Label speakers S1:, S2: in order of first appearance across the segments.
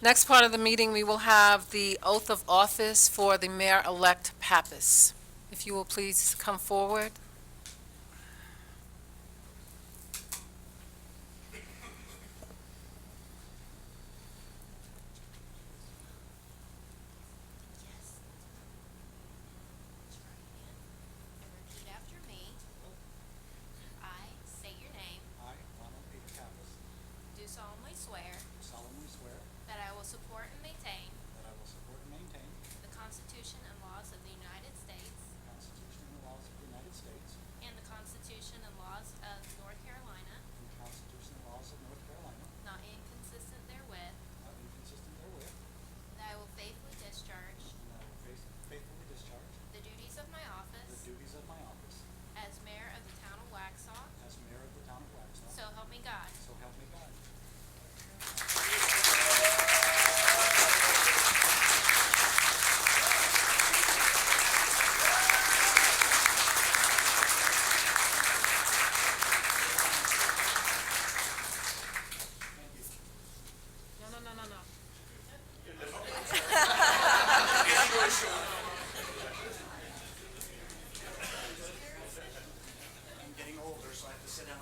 S1: Next part of the meeting, we will have the oath of office for the mayor-elect Pappas. If you will please come forward.
S2: Raise your right hand and repeat after me. I say your name,
S3: I, Ronald A. Pappas,
S2: do solemnly swear
S3: do solemnly swear
S2: that I will support and maintain
S3: that I will support and maintain
S2: the Constitution and laws of the United States
S3: the Constitution and laws of the United States
S2: and the Constitution and laws of North Carolina,
S3: and the Constitution and laws of North Carolina,
S2: not inconsistent therewith,
S3: not inconsistent therewith,
S2: that I will faithfully discharge
S3: and that I will faith- faithfully discharge
S2: the duties of my
S3: the
S2: office
S3: duties of my office
S2: as mayor of the town of Waxhaw,
S3: as mayor of the town of Waxhaw.
S2: so help me God.
S3: So help me God.
S1: No, no, no, no, no.
S3: I'm getting older, so I have to sit down.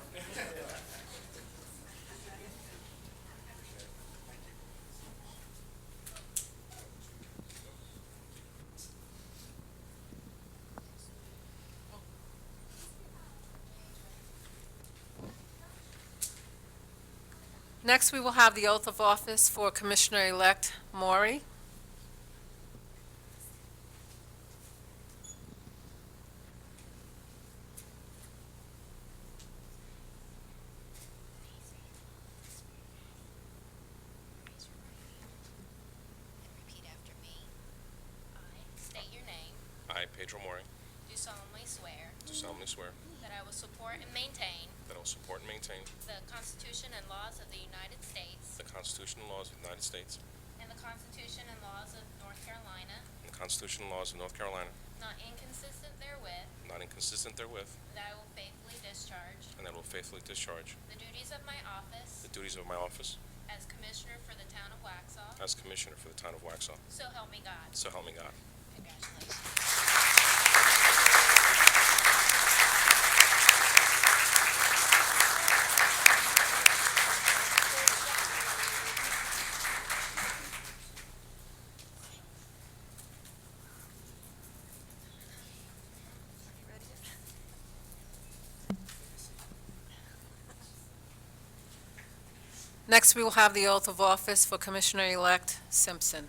S1: Next, we will have the oath of office for Commissioner-elect Maury.
S2: Raise your right hand and repeat after me. I state your name,
S4: I, Pedro Mori,
S2: do solemnly swear
S4: do solemnly swear
S2: that I will support and maintain
S4: that I will support and maintain
S2: the Constitution and laws of the United States
S4: the Constitution and laws of the United States
S2: and the Constitution and laws of North Carolina,
S4: and the Constitution and laws of North Carolina,
S2: not inconsistent therewith,
S4: not inconsistent therewith,
S2: that I will faithfully discharge
S4: and that I will faithfully discharge
S2: the duties of my
S4: the
S2: office
S4: duties of my office
S2: as Commissioner for the Town of Waxhaw,
S4: as Commissioner for the Town of Waxhaw.
S2: so help me God.
S4: So help me God.
S2: Congratulations.
S1: Next, we will have the oath of office for Commissioner-elect Simpson.